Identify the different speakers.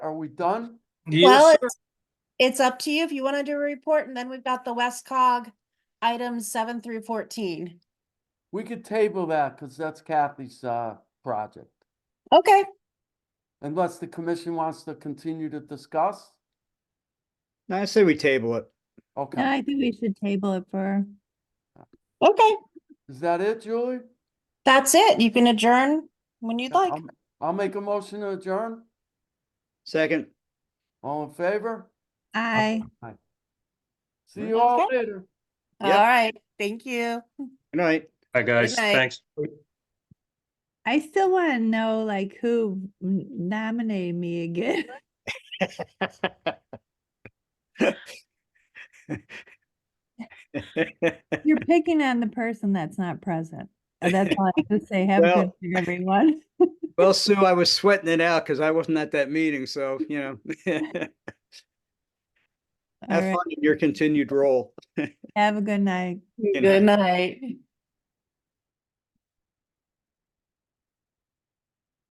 Speaker 1: we done?
Speaker 2: Well,
Speaker 3: Yes, sir.
Speaker 2: it's- It's up to you if you want to do a report, and then we've got the West Cog items seven through fourteen.
Speaker 1: We could table that because that's Kathy's, uh, project.
Speaker 2: Okay,
Speaker 1: Unless the commission wants to continue to discuss?
Speaker 4: I say we table it.
Speaker 5: No,
Speaker 1: Okay,
Speaker 5: I think we should table it for,
Speaker 2: okay,
Speaker 1: is that it, Julie?
Speaker 2: that's it. You can adjourn when you'd like.
Speaker 1: I'll- I'll make a motion to adjourn.
Speaker 4: Second,
Speaker 1: All in favor?
Speaker 5: I.
Speaker 1: See you all
Speaker 2: Okay.
Speaker 1: later.
Speaker 2: All
Speaker 4: Yep.
Speaker 2: right, thank you.
Speaker 4: good night.
Speaker 3: Hi, guys.
Speaker 2: night.
Speaker 3: Thanks.
Speaker 5: I still want to know like who n- nominated me again. You're picking on the person that's not present. That's all I have to say. Have a good
Speaker 4: Well-
Speaker 5: night, everyone.
Speaker 4: Well, Sue, I was sweating it out because I wasn't at that meeting, so, you know.
Speaker 5: All
Speaker 4: Have
Speaker 5: right,
Speaker 4: fun in your continued role.
Speaker 5: Have a good night.
Speaker 4: Good
Speaker 2: night.